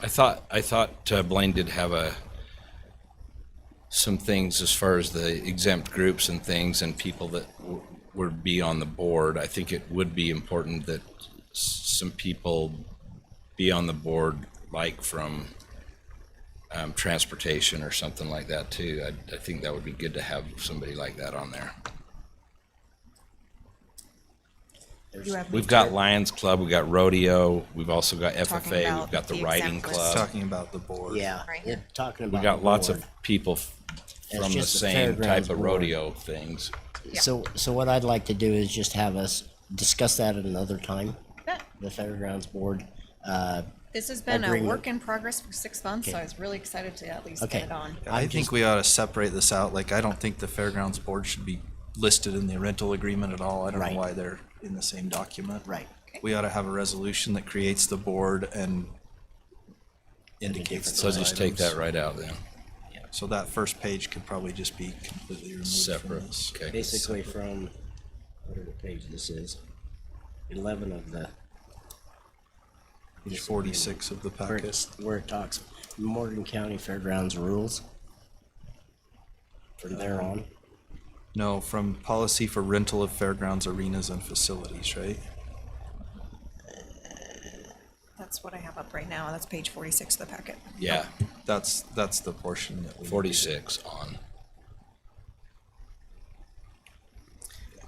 I thought I thought uh, Blaine did have a some things as far as the exempt groups and things and people that w- would be on the board. I think it would be important that s- some people be on the board, like from um, transportation or something like that too. I, I think that would be good to have somebody like that on there. You have We've got Lions Club, we've got rodeo, we've also got FFA, we've about got the the riding exempt list. club. Talking about the board. Uh, Yeah, Right. you're talking about. We got lots of board. people f- That's from the just the same type fairgrounds of board. rodeo things. So, so what I'd like to do is just have us discuss that at another time, That- the fairgrounds board. Uh, This has been a Agreement. work in progress for six months, so Okay. I was really excited to at least Okay. get it on. I think we ought to separate this out. Like, I don't think the fairgrounds board should be listed in the rental agreement at all. I don't Right. know why they're in the same document. Right. We ought to have a resolution that creates the board and indicates So those just take that items. right out then, So that first page could probably just be completely removed from separate, this. okay. Basically from, whatever page this is, eleven of the, Page forty-six of the where packet. it's, where it talks Morgan County Fairgrounds rules. From there on, No, from policy for rental of fairgrounds, arenas and facilities, right? That's what I have up right now. That's page forty-six of the packet. Yeah, That's, that's the portion that we. forty-six on.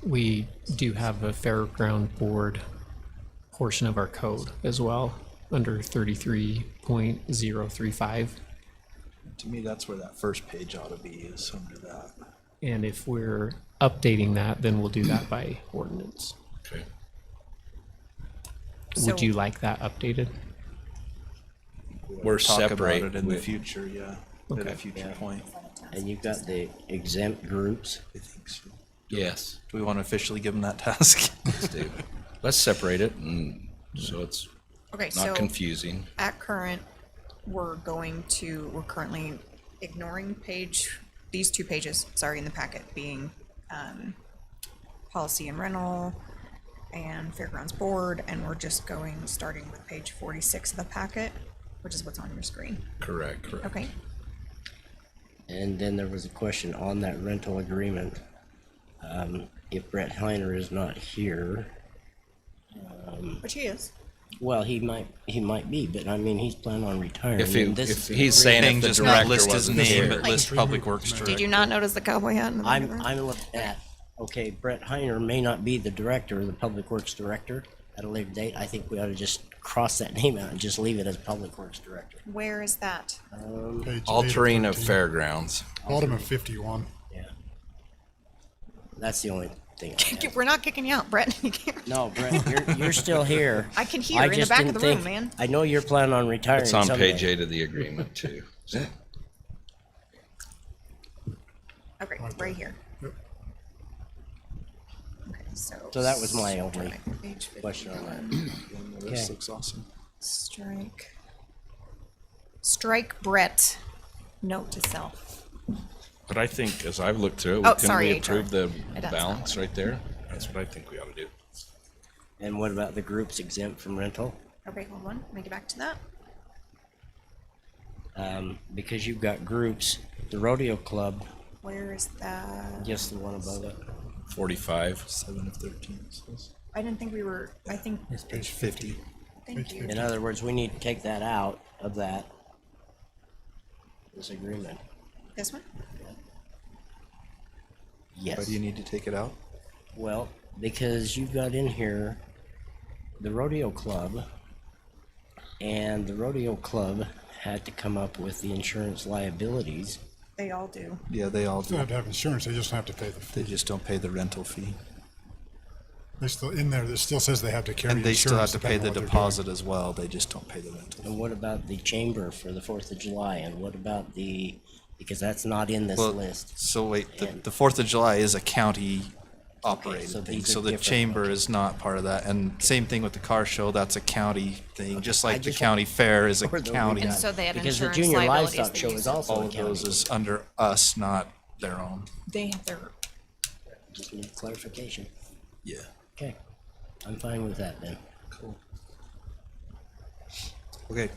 we do have a fairground board portion of our code as well, under thirty-three point zero three five. To me, that's where that first page ought to be is under that. And if we're updating that, then we'll do that by ordinance. Okay. Would So- you like that updated? We're Talk about separate. it in the We- future, yeah, at a Okay. future point. and you've got the exempt groups. I think so. Yes, Do we want to officially give them that task? let's do. Let's separate it and so it's Okay, so not confusing. at current, we're going to, we're currently ignoring page, these two pages, sorry, in the packet being, um, policy and rental and fairgrounds board, and we're just going, starting with page forty-six of the packet, which is what's on your screen. Correct, correct. Okay, And then there was a question on that rental agreement. Um, if Brett Heiner is not here, which he is. well, he might, he might be, but I mean, he's planning on retiring. If, he- and this if is- he's saying Thing if the just not director list his wasn't name, but here. list Public Works Director. Did you not notice the cowboy hat in the I'm, background? I'm looking at, okay, Brett Heiner may not be the director, the public works director at a later date. I think we ought to just cross that name out and just leave it as public works director. Where is that? Page eight Altering of 13, fairgrounds. Bottom of fifty-one. Yeah. That's the only thing. I have. We're not kicking you out, Brett. You can't- No, Brett, you're, you're still here. I can hear in the just back of didn't the room, think- man. I know you're planning on retiring It's on someday. page eight of the agreement too. Okay, right here. Okay, so. So that was my only strike page question on 51. And the rest Okay. looks awesome. Strike. Strike Brett. Note to self. But I think, as I've looked through, Oh, it, can sorry, we HR. approve the I don't- balance right there? That's what I think we ought to do. And what about the groups exempt from rental? Okay, hold on. Let me get back to that. Um, because you've got groups, the rodeo club, Where is that? just the one above it. Forty-five. Seven of thirteen. it says. I didn't think we were, I think, It's page fifty. thank you. In other words, we need to take that out of that. This agreement. This one? Why Yes. do you need to take it out? Well, because you've got in here the rodeo club, and the rodeo club had to come up with the insurance liabilities. They all do. Yeah, they all do. They don't have to have insurance, they just have to pay the fee. They just don't pay the rental fee. They still, in there, it still says they have to carry And insurance. they still have to pay depending the on what they're doing. deposit as well. They just don't pay the rental. And what about the chamber for the Fourth of July? And what about the, because that's not in this Well, list. So wait, the, the Fourth of July is a county so operated thing, these are so the different, chamber is not part of that, and same thing with the car show, that's a county thing, just like the just county fair is a Or the county. weekend. so they had Because the insurance junior liabilities livestock that show you is said. also All a of those county. is under us, not their own. They have their Just need clarification. Yeah. Okay, I'm fine with that then. Cool. Okay,